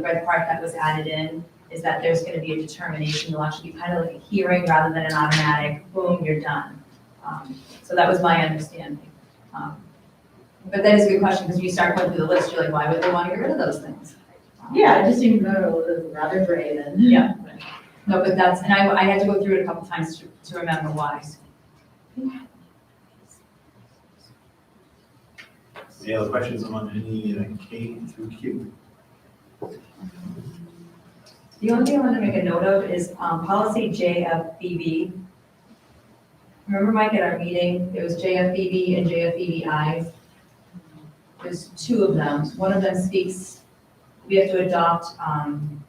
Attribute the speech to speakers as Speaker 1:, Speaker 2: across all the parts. Speaker 1: the red part that was added in is that there's going to be a determination, there'll actually be kind of like a hearing rather than an automatic, boom, you're done. Um, So that was my understanding. Um, But that is a good question, because you start going through the list, you're like, why would they want to get rid of those things? Um,
Speaker 2: Yeah, it just seemed rather rather gray then.
Speaker 1: Yeah. No, but that's, and I, I had to go through it a couple times to, to remember why.
Speaker 3: Any other questions on any uh, K through Q?
Speaker 1: The only thing I wanted to make a note of is um, policy JFBB. Remember, Mike, at our meeting, there was JFBB and JFBBI. There's two of them. One of them speaks, we have to adopt, um,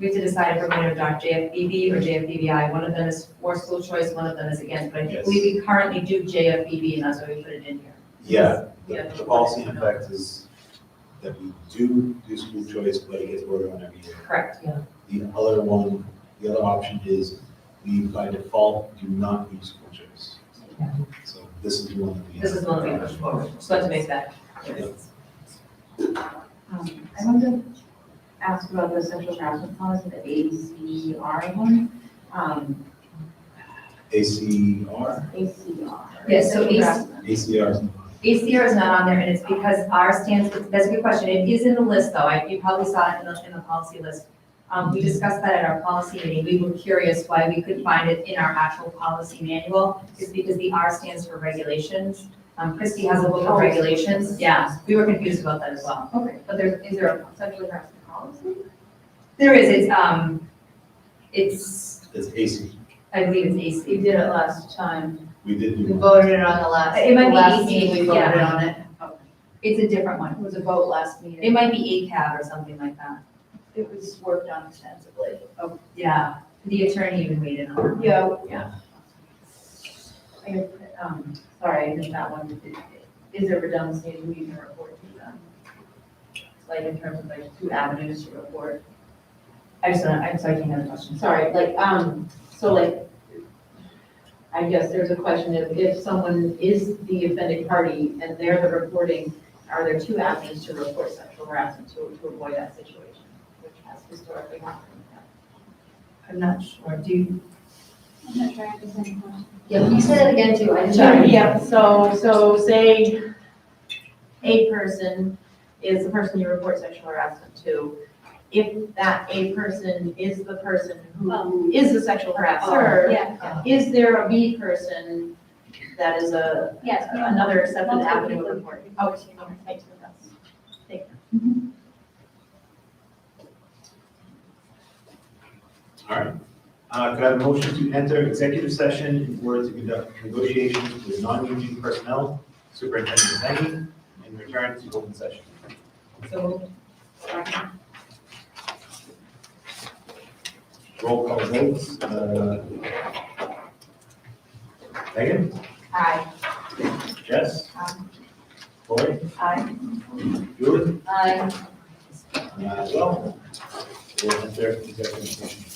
Speaker 1: we have to decide if we're going to adopt JFBB or JFBBI. One of them is for school choice, one of them is against, but I think we we currently do JFBB, and that's why we put it in here.
Speaker 3: Yeah, the, the policy in fact is that we do do school choice, but it gets voted on every year.
Speaker 1: Correct.
Speaker 3: The other one, the other option is we by default do not do school choice. So this is one that we.
Speaker 1: This is the one that we pushed forward. Just wanted to make that clear.
Speaker 2: Um, I wanted to ask about the sexual harassment policy, the ACR one, um,
Speaker 3: ACR,
Speaker 2: ACR.
Speaker 1: Yeah, so
Speaker 2: Sexual
Speaker 1: AC
Speaker 2: harassment.
Speaker 3: ACR is not.
Speaker 1: ACR is not on there, and it's because R stands for, that's a good question, it is in the list, though, I, you probably saw it in the, in the policy list. Um, we discussed that at our policy meeting, we were curious why we couldn't find it in our actual policy manual, is because the R stands for regulations. Um, Christie has a book of regulations, yeah, we were confused about that as well.
Speaker 2: Okay, but there, is there a sexual harassment policy?
Speaker 1: There is, it's, um, it's,
Speaker 3: It's AC.
Speaker 1: I believe it's AC,
Speaker 4: You did it last time.
Speaker 3: We did
Speaker 4: We
Speaker 3: do.
Speaker 4: voted it on the last,
Speaker 1: It might be
Speaker 4: last
Speaker 1: easy,
Speaker 4: meeting, we
Speaker 1: yeah.
Speaker 4: voted on it.
Speaker 1: it's a different one,
Speaker 4: It was a vote last
Speaker 1: it
Speaker 4: meeting.
Speaker 1: might be ACAB or something like that,
Speaker 4: It was worked on extensively.
Speaker 1: yeah, the attorney even waited on it.
Speaker 4: Yeah.
Speaker 2: I guess, um, sorry, I missed that one. Is there redundancy in who you can report to them? Like in terms of like two avenues to report?
Speaker 1: I just, don't- I'm sorry, I can't have a question.
Speaker 2: Sorry, like, um, so like, I guess there's a question of if someone is the offended party and they're the reporting, are there two avenues to report sexual harassment to, to avoid that situation? Which has historically happened.
Speaker 1: I'm not sure, do you?
Speaker 5: I'm not sure I understand the question.
Speaker 4: Yeah, can you say that again too? I
Speaker 2: Sorry,
Speaker 4: didn't.
Speaker 2: yeah, so, so say a person is the person you report sexual harassment to. If that a person is the person who is the sexual harasser,
Speaker 5: Um, Yeah,
Speaker 2: is there a B person that is a,
Speaker 5: yes. we want
Speaker 2: another accepted
Speaker 5: multiple
Speaker 2: avenue
Speaker 5: people
Speaker 2: of reporting?
Speaker 5: to-
Speaker 2: Okay, okay, thank you, that's- thank you.
Speaker 3: All right. Uh, could I have a motion to enter executive session in order to conduct negotiations with non-union personnel, Superintendent Lenny, and return to open session?
Speaker 1: So,
Speaker 3: Roll call votes. uh, Megan?
Speaker 1: aye.
Speaker 3: Jess?
Speaker 1: Aye.
Speaker 3: Lori?
Speaker 1: Aye.
Speaker 3: Julie?
Speaker 4: Aye.
Speaker 3: Uh, Well, we'll enter executive session.